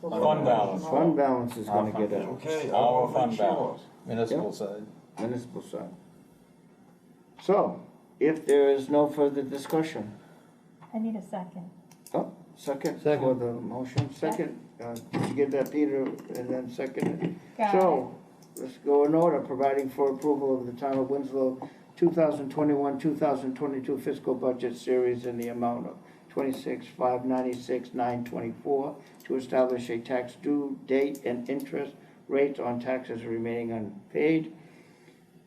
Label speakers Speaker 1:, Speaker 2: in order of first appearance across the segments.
Speaker 1: what
Speaker 2: Fund
Speaker 1: I'm-
Speaker 2: balance.
Speaker 3: Fund balance is gonna get a
Speaker 4: Okay,
Speaker 2: Our
Speaker 4: I'll
Speaker 2: fund
Speaker 4: make sure.
Speaker 2: balance.
Speaker 5: municipal side.
Speaker 3: municipal side. So, if there is no further discussion,
Speaker 1: I need a second.
Speaker 3: oh, second for
Speaker 5: Second.
Speaker 3: the motion, second, uh, did you give that Peter and then second it?
Speaker 1: Got it.
Speaker 3: So, let's go in order, providing for approval of the town of Winslow 2021, 2022 fiscal budget series in the amount of 26,596,924 to establish a tax due date and interest rates on taxes remaining unpaid.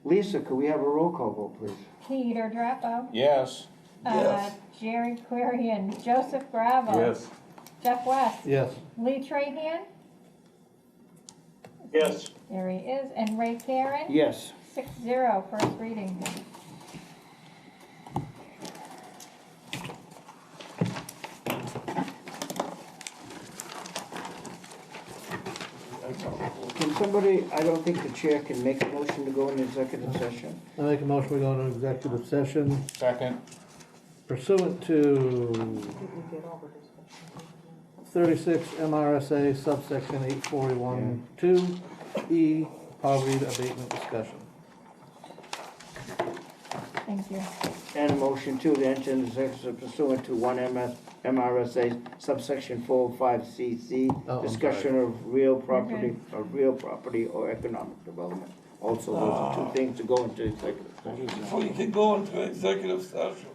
Speaker 3: Lisa, could we have a roll call vote, please?
Speaker 1: Peter Drapo.
Speaker 2: Yes.
Speaker 4: Yes.
Speaker 1: uh, Jerry Querian, Joseph Bravo.
Speaker 2: Yes.
Speaker 1: Jeff West.
Speaker 5: Yes.
Speaker 1: Lee Trahan,
Speaker 4: Yes,
Speaker 1: there he is, and Ray Karen,
Speaker 3: Yes.
Speaker 1: six zero, first reading.
Speaker 3: Can somebody, I don't think the chair can make a motion to go into executive session.
Speaker 5: I make a motion, we go into executive session
Speaker 2: Second.
Speaker 5: pursuant to thirty-six MRSA subsection eight forty-one two E, poverty abatement discussion.
Speaker 1: Thank you.
Speaker 3: And a motion two to enter into executive pursuant to one MS, MRSA subsection four oh five CC.
Speaker 5: Oh, I'm
Speaker 3: Discussion of real property, of real property or economic development. Also, those are
Speaker 5: Ah.
Speaker 3: two things to go into executive. session.
Speaker 4: before you can go into executive session,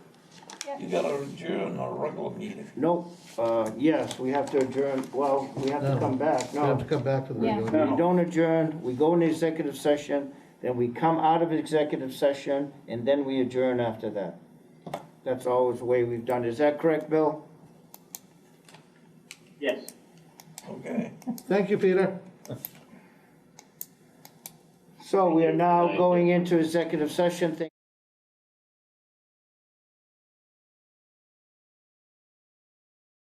Speaker 4: you
Speaker 1: Yep.
Speaker 4: gotta adjourn our regular meeting.
Speaker 3: Nope, uh, yes, we have to adjourn, well, we have to
Speaker 5: No.
Speaker 3: come back,
Speaker 5: We have
Speaker 3: no.
Speaker 5: to come back to the
Speaker 1: Yeah.
Speaker 5: regular.
Speaker 3: We don't adjourn, we go into executive session, then we come out of executive session, and then we adjourn after that. That's always the way we've done, it. is that correct, Bill?
Speaker 6: Yes.
Speaker 4: Okay,
Speaker 5: Thank you, Peter.
Speaker 3: So we are now
Speaker 6: Thank you.
Speaker 3: going into executive session, Thank